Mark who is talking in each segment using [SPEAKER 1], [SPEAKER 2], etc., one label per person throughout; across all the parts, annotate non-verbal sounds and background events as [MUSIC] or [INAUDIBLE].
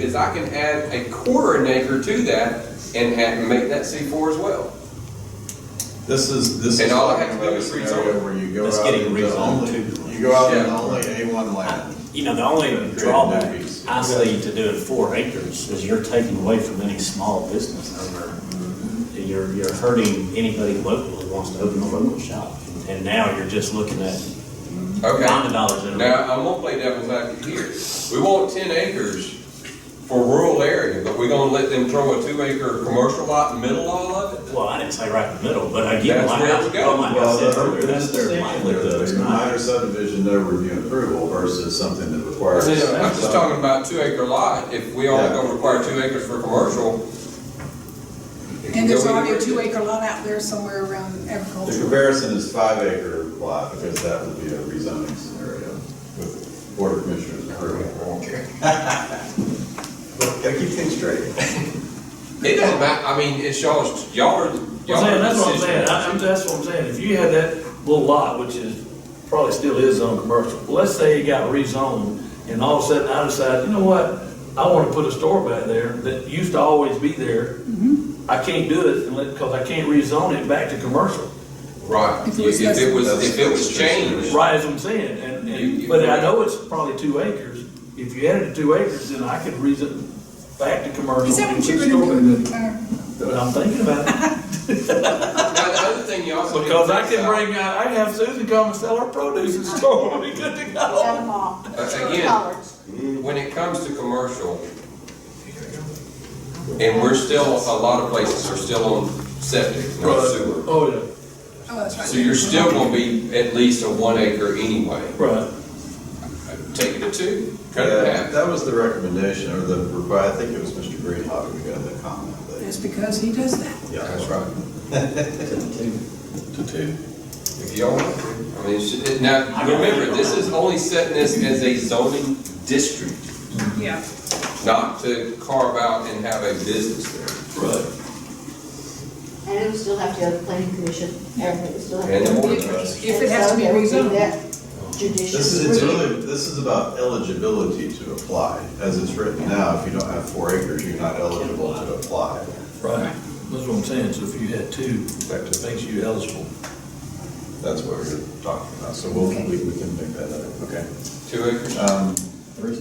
[SPEAKER 1] is I can add a quarter an acre to that and add, make that C four as well.
[SPEAKER 2] This is, this is.
[SPEAKER 1] And all I have to
[SPEAKER 2] talking
[SPEAKER 1] do
[SPEAKER 2] about
[SPEAKER 1] is
[SPEAKER 2] a scenario
[SPEAKER 1] rezone.
[SPEAKER 2] Where you go
[SPEAKER 3] That's
[SPEAKER 2] out
[SPEAKER 3] getting
[SPEAKER 2] into
[SPEAKER 3] rezoned
[SPEAKER 2] only-
[SPEAKER 3] to-
[SPEAKER 2] You go out into
[SPEAKER 1] Yeah.
[SPEAKER 2] only A one land.
[SPEAKER 3] You know, the only
[SPEAKER 2] Creating
[SPEAKER 3] drawback,
[SPEAKER 2] movies.
[SPEAKER 3] I say, to doing four acres is you're taking away from any small business owner. You're, you're hurting anybody local who wants to open a local shop. And now you're just looking at
[SPEAKER 1] Okay.
[SPEAKER 3] nine dollars an hour.
[SPEAKER 1] Now, I'm gonna play devil's advocate here. We want ten acres for rural area, but we gonna let them throw a two acre commercial lot in the middle of all of it?
[SPEAKER 3] Well, I didn't say right in the middle, but again,
[SPEAKER 1] That's
[SPEAKER 3] like
[SPEAKER 1] where
[SPEAKER 3] I,
[SPEAKER 1] we go.
[SPEAKER 3] well, like I
[SPEAKER 2] Well,
[SPEAKER 3] said
[SPEAKER 2] the
[SPEAKER 3] earlier,
[SPEAKER 2] urban
[SPEAKER 3] that's their
[SPEAKER 2] distinction there,
[SPEAKER 3] livelihood, it's
[SPEAKER 2] the minor
[SPEAKER 3] not.
[SPEAKER 2] subdivision, no review and approval versus something that requires.
[SPEAKER 1] I'm just talking about two acre lot. If we only
[SPEAKER 2] Yeah.
[SPEAKER 1] gonna require two acres for commercial. it can
[SPEAKER 4] And there's
[SPEAKER 1] go either
[SPEAKER 4] already a
[SPEAKER 1] way.
[SPEAKER 4] two acre lot out there somewhere around
[SPEAKER 2] The
[SPEAKER 4] agriculture.
[SPEAKER 2] comparison is five acre lot, because that would be a rezoning scenario with board of commissioners
[SPEAKER 1] [LAUGHS]
[SPEAKER 2] approval. Gotta keep things straight.
[SPEAKER 1] It doesn't matter, I mean, it's y'all's, y'all are,
[SPEAKER 5] I'm
[SPEAKER 1] y'all
[SPEAKER 5] saying,
[SPEAKER 1] are
[SPEAKER 5] that's what I'm saying,
[SPEAKER 1] decision.
[SPEAKER 5] I- I'm, that's what I'm saying, if you had that little lot, which is, probably still is on commercial, well, let's say it got rezoned, and all of a sudden I decide, you know what, I wanna put a store back there that used to always be there.
[SPEAKER 4] Mm-hmm.
[SPEAKER 5] I can't do it, unless, cause I can't rezone it back to commercial,
[SPEAKER 1] Right, if
[SPEAKER 4] If it was
[SPEAKER 1] it was,
[SPEAKER 2] less-
[SPEAKER 1] if it was changed.
[SPEAKER 5] right as I'm saying, and,
[SPEAKER 1] You- you-
[SPEAKER 5] and, but I know it's probably two acres. If you added two acres, then I could rezon back to commercial.
[SPEAKER 4] Is that
[SPEAKER 5] and
[SPEAKER 4] what you're
[SPEAKER 5] put a store
[SPEAKER 4] gonna
[SPEAKER 5] in
[SPEAKER 4] do?
[SPEAKER 5] it.
[SPEAKER 4] Mayor?
[SPEAKER 5] But I'm thinking about it.
[SPEAKER 1] Now, the other thing you also. need to
[SPEAKER 5] Because I
[SPEAKER 1] think
[SPEAKER 5] can
[SPEAKER 1] about-
[SPEAKER 5] bring, uh, I I can have Susan come and sell her produce and store, we'll be good to
[SPEAKER 6] Got
[SPEAKER 5] go.
[SPEAKER 6] them
[SPEAKER 4] oh,
[SPEAKER 6] all.
[SPEAKER 1] Uh, Again, when it comes to commercial, and we're still, a lot of places are still on septic, no sewer.
[SPEAKER 5] Oh, yeah,
[SPEAKER 4] Oh, that's right.
[SPEAKER 1] So you're still gonna be at least a one acre anyway.
[SPEAKER 5] right.
[SPEAKER 1] Take it to two, cut it in
[SPEAKER 2] Yeah,
[SPEAKER 1] half.
[SPEAKER 2] Uh, that was the recommendation, or the, requi- I think it was Mr. Greenhawk who got that comment, but.
[SPEAKER 4] That's because he does that.
[SPEAKER 2] Yeah,
[SPEAKER 1] That's right.
[SPEAKER 2] To two.
[SPEAKER 1] If y'all want to. I mean, it's- it- now, remember, this is only setting this as a zoning district,
[SPEAKER 4] Yeah.
[SPEAKER 1] not to carve out and have a business there.
[SPEAKER 2] Right.
[SPEAKER 6] And it would still have to go to the planning commission, and it would still have to.
[SPEAKER 1] And then
[SPEAKER 6] go-
[SPEAKER 1] we'll-
[SPEAKER 4] If if it has to be
[SPEAKER 6] And so they would do
[SPEAKER 4] rezoned.
[SPEAKER 6] that Judicial.
[SPEAKER 2] This is, it's really, this is about eligibility to apply. As it's written now, if you don't have four acres, you're not eligible to apply.
[SPEAKER 5] Right, that's what I'm saying, so if you had two, that makes you eligible.
[SPEAKER 2] That's what we're talking about, so we'll, we we can make that up. Okay.
[SPEAKER 1] Two acres.
[SPEAKER 5] Uh,
[SPEAKER 2] Um,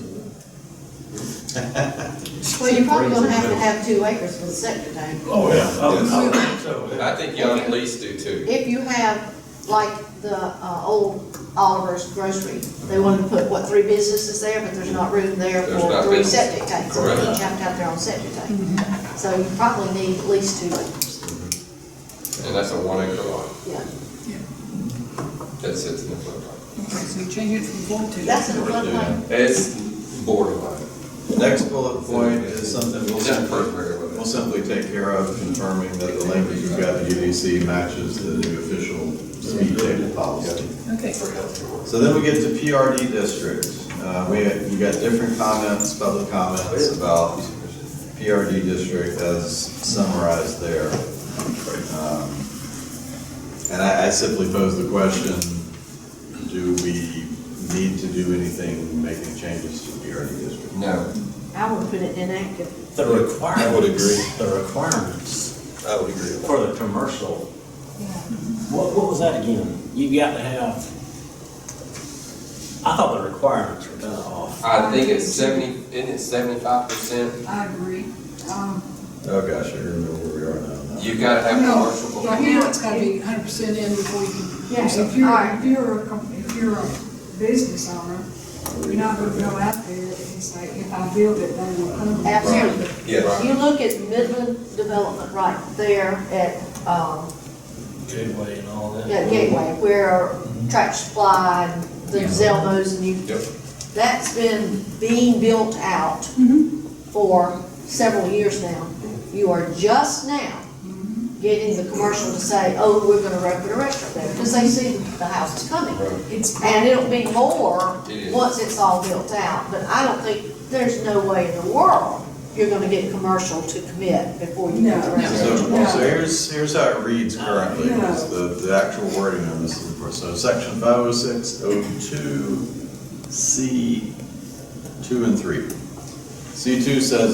[SPEAKER 6] Well, you're probably gonna have to have two acres for the septic tank.
[SPEAKER 5] Oh, yeah. I would- I would
[SPEAKER 4] Yes.
[SPEAKER 5] think so, yeah.
[SPEAKER 1] I think y'all at least do two.
[SPEAKER 6] If you have, like, the, uh, old Oliver's grocery, they wanted to put, what, three businesses there, but there's not room there
[SPEAKER 1] There's not
[SPEAKER 6] for three
[SPEAKER 1] business.
[SPEAKER 6] septic tanks. So they
[SPEAKER 1] Correct.
[SPEAKER 6] each have to have their own septic tank. So you probably need at least two acres,
[SPEAKER 1] And that's a one acre lot
[SPEAKER 6] yeah.
[SPEAKER 4] Yeah.
[SPEAKER 1] that sits in the floodplain.
[SPEAKER 4] Okay, so you change it from four to.
[SPEAKER 6] That's in the floodplain.
[SPEAKER 1] It's borderline.
[SPEAKER 2] Next bullet point is something we'll
[SPEAKER 1] It's not
[SPEAKER 2] simply,
[SPEAKER 1] perfect, but-
[SPEAKER 2] we'll simply take care of, confirming that the language we've got in UDC matches the new official speed table policy.
[SPEAKER 4] Okay.
[SPEAKER 2] So then we get to PRD districts. Uh, We, we got different comments, public comments about PRD district as summarized there. Um, And I, I simply pose the question, do we need to do anything, making changes to PRD district?
[SPEAKER 1] No.
[SPEAKER 6] I would put it inactive.
[SPEAKER 3] The requirements.
[SPEAKER 2] I would agree.
[SPEAKER 3] The requirements
[SPEAKER 2] I would agree
[SPEAKER 3] for the commercial. What, what was that again? You got to have, I thought the requirements were kind of off.
[SPEAKER 1] I think it's seventy, isn't it seventy-five percent?
[SPEAKER 4] I agree. Um,
[SPEAKER 2] Oh, gosh, I remember where we are now.
[SPEAKER 1] You gotta have commercial.
[SPEAKER 4] no, right
[SPEAKER 1] before-
[SPEAKER 4] now it's gotta be hundred percent in before you can. do
[SPEAKER 6] Yeah, if
[SPEAKER 4] something.
[SPEAKER 6] you're- Alright.
[SPEAKER 7] If you're, a com- if you're a business owner, you're not gonna go out there and say, if I build it, they will come.
[SPEAKER 6] Absolutely.
[SPEAKER 1] Yes.
[SPEAKER 6] You look at Midland Development right there at, um,
[SPEAKER 5] Gateway and all that.
[SPEAKER 6] at Gateway, where Tractor Supply and the
[SPEAKER 4] Yeah.
[SPEAKER 6] Zelmos and you,
[SPEAKER 1] Yep.
[SPEAKER 6] that's been being built out for several years now. You are just now getting the commercial to say, oh, we're gonna open a restaurant there, because they see the houses coming.
[SPEAKER 7] It's,
[SPEAKER 6] And it'll be more
[SPEAKER 1] It is.
[SPEAKER 6] once it's all built out, but I don't think, there's no way in the world you're gonna get commercial to commit before you get the
[SPEAKER 4] No, no.
[SPEAKER 2] So,
[SPEAKER 6] residential.
[SPEAKER 2] so here's, here's how it reads currently, is the, the actual wording on this is, so section five oh six oh two C two and three. C two says